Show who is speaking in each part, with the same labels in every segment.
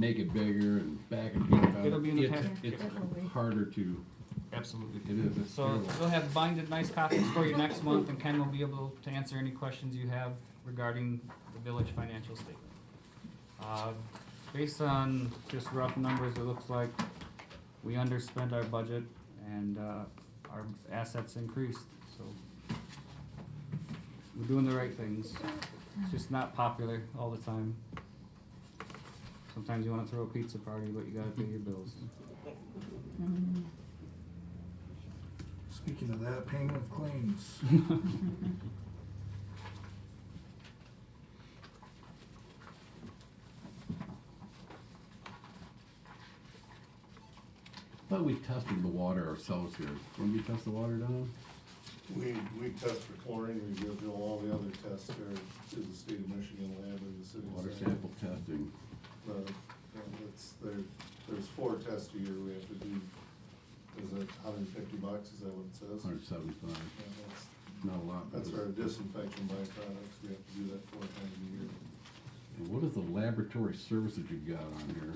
Speaker 1: make it bigger and back and forth.
Speaker 2: It'll be in the
Speaker 1: It's-
Speaker 2: packet.
Speaker 1: It's
Speaker 3: Definitely.
Speaker 1: harder to,
Speaker 2: Absolutely.
Speaker 1: it is, it's
Speaker 2: So
Speaker 1: terrible.
Speaker 2: we'll have binded nice copies for you next month, and Ken will be able to answer any questions you have regarding the village financial statement. Uh, Based on just rough numbers, it looks like we underspent our budget and uh, our assets increased, so we're doing the right things. It's just not popular all the time. Sometimes you wanna throw a pizza party, but you gotta pay your bills.
Speaker 4: Speaking of that, payment of claims.
Speaker 1: But we tested the water ourselves here. When we test the water down,
Speaker 5: We, we test for chlorine, we go through all the other tests there through the state of Michigan lab and the city.
Speaker 1: water
Speaker 5: center.
Speaker 1: sample testing.
Speaker 5: But, and it's, there, there's four tests a year we have to do. Is it hundred and fifty bucks, is that what it says?
Speaker 1: Hundred seventy-five,
Speaker 5: Yeah, that's-
Speaker 1: not a lot. but
Speaker 5: That's our
Speaker 1: it's-
Speaker 5: disinfection byproducts, we have to do that four times a year.
Speaker 1: And what is the laboratory service that you've got on here?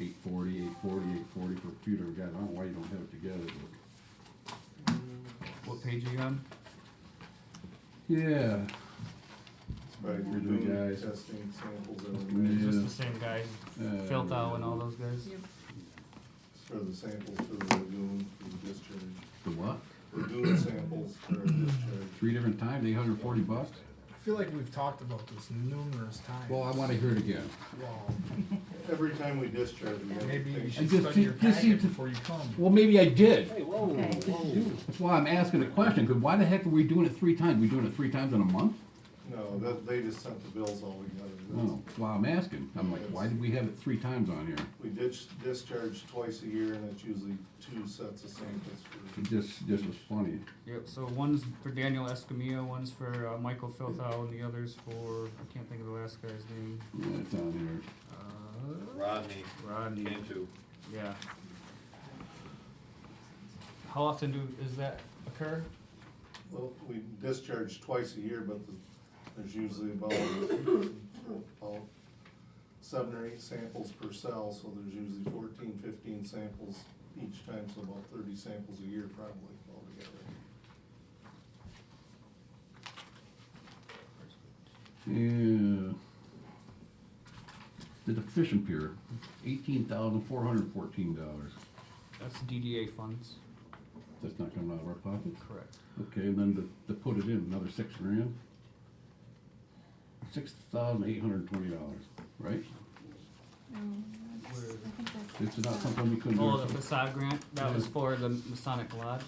Speaker 1: Eight forty, eight forty, eight forty for computer, God, I don't know why you don't have it together, but.
Speaker 2: What page are you on?
Speaker 1: Yeah,
Speaker 5: Right,
Speaker 1: You're
Speaker 5: you're
Speaker 1: doing
Speaker 5: doing
Speaker 1: guys.
Speaker 5: testing samples every
Speaker 1: Yeah.
Speaker 5: day.
Speaker 2: It's just the same guys,
Speaker 1: Uh,
Speaker 2: Phil Thau and all those guys.
Speaker 3: Yep.
Speaker 5: For the samples for the lagoon, for the discharge.
Speaker 1: the what?
Speaker 5: Lagoon samples for discharge.
Speaker 1: Three different times, eight hundred and forty bucks?
Speaker 4: I feel like we've talked about this numerous times.
Speaker 1: Well, I wanna hear it again.
Speaker 4: Well,
Speaker 5: Every time we discharge, we have to
Speaker 4: maybe you
Speaker 5: take-
Speaker 4: should
Speaker 1: just-
Speaker 4: study your
Speaker 1: just seem
Speaker 4: packet
Speaker 1: to-
Speaker 4: before you come.
Speaker 1: Well, maybe I did.
Speaker 3: Okay.
Speaker 1: That's why I'm asking a question, because why the heck are we doing it three times? We doing it three times in a month?
Speaker 5: No, that, they just sent the bills all together. That's-
Speaker 1: No, that's why I'm asking. I'm like, why did we have it three times on here?
Speaker 5: We ditch, discharge twice a year, and it's usually two sets of samples for,
Speaker 1: It just, this was funny.
Speaker 2: Yep, so one's for Daniel Escamilla, one's for uh, Michael Filthau, and the other's for, I can't think of the last guy's name.
Speaker 1: Yeah, it's on
Speaker 2: Uh,
Speaker 6: Rodney
Speaker 2: Rodney,
Speaker 6: Cantu.
Speaker 2: yeah. How often do, does that occur?
Speaker 5: well, we discharge twice a year, but the- there's usually about, about seven or eight samples per cell, so there's usually fourteen, fifteen samples each time, so about thirty samples a year probably altogether.
Speaker 1: here. Yeah. The fishing pier, eighteen thousand four hundred fourteen dollars.
Speaker 2: That's DDA funds.
Speaker 1: That's not coming out of our pockets.
Speaker 2: Correct.
Speaker 1: Okay, and then to, to put it in, another six grand. Six thousand eight hundred twenty dollars, right? It's not something we couldn't do.
Speaker 2: Oh, the facade grant, that was
Speaker 1: Yeah.
Speaker 2: for the Masonic Lodge,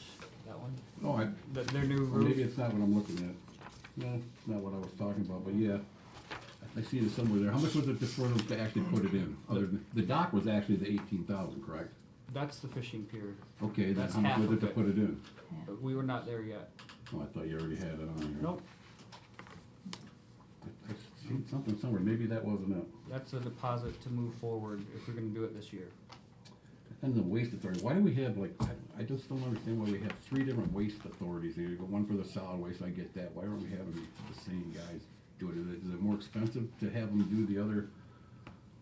Speaker 2: that one,
Speaker 1: Oh, I,
Speaker 2: The- their new
Speaker 1: Or maybe
Speaker 2: roof.
Speaker 1: it's not what I'm looking at. No, it's not what I was talking about, but yeah. I see it somewhere there. How much was it before them to actually put it in? Other than, the dock was actually the eighteen thousand, correct?
Speaker 2: That's the fishing pier,
Speaker 1: Okay, then
Speaker 2: That's
Speaker 1: how much
Speaker 2: half
Speaker 1: was it
Speaker 2: of
Speaker 1: to
Speaker 2: it.
Speaker 1: put it in?
Speaker 2: but we were not there yet.
Speaker 1: Oh, I thought you already had it on here.
Speaker 2: Nope,
Speaker 1: I seen something somewhere, maybe that wasn't it.
Speaker 2: that's a deposit to move forward if we're gonna do it this year.
Speaker 1: And the waste authority, why do we have like, I, I just don't understand why we have three different waste authorities here. You got one for the solid waste, I get that. Why aren't we having the same guys do it? Is it- is it more expensive to have them do the other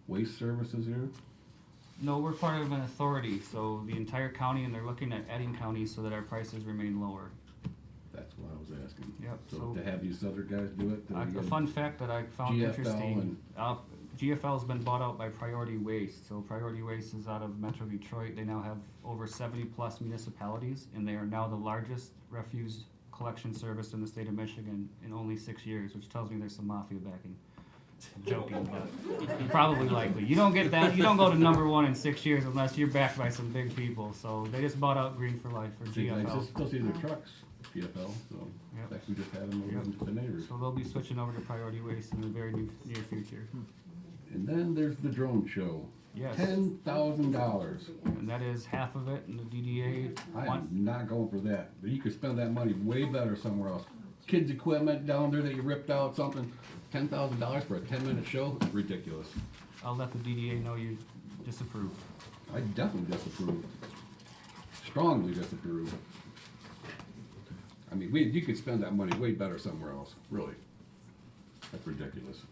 Speaker 1: waste services here?
Speaker 2: No, we're part of an authority, so the entire county, and they're looking at adding counties so that our prices remain lower.
Speaker 1: That's what I was asking.
Speaker 2: Yep,
Speaker 1: So
Speaker 2: so-
Speaker 1: to have these other guys do it? then
Speaker 2: Uh,
Speaker 1: we
Speaker 2: A
Speaker 1: gotta-
Speaker 2: fun fact that I found
Speaker 1: GFL
Speaker 2: interesting,
Speaker 1: and-
Speaker 2: uh, GFL's been bought out by Priority Waste, so Priority Waste is out of Metro Detroit, they now have over seventy plus municipalities, and they are now the largest refuse collection service in the state of Michigan in only six years, which tells me there's some mafia backing. Joking, but you're probably likely, you don't get that, you don't go to number one in six years unless you're backed by some big people, so they just bought out Green for Life or
Speaker 1: See, I
Speaker 2: GFL.
Speaker 1: just still see their trucks, GFL, so,
Speaker 2: Yep.
Speaker 1: like we just had them over
Speaker 2: Yep.
Speaker 1: in the neighbors.
Speaker 2: So they'll be switching over to Priority Waste in the very new, near future.
Speaker 1: And then there's the drone show.
Speaker 2: Yes.
Speaker 1: Hmm. Ten thousand dollars.
Speaker 2: And that is half of it in the DDA.
Speaker 1: I am
Speaker 2: One,
Speaker 1: not going for that. But you could spend that money way better somewhere else. Kids' equipment down there that you ripped out, something, ten thousand dollars for a ten-minute show, ridiculous.
Speaker 2: I'll let the DDA know you disapprove.
Speaker 1: I definitely disapprove. Strongly disapprove. I mean, we, you could spend that money way better somewhere else, really. That's ridiculous.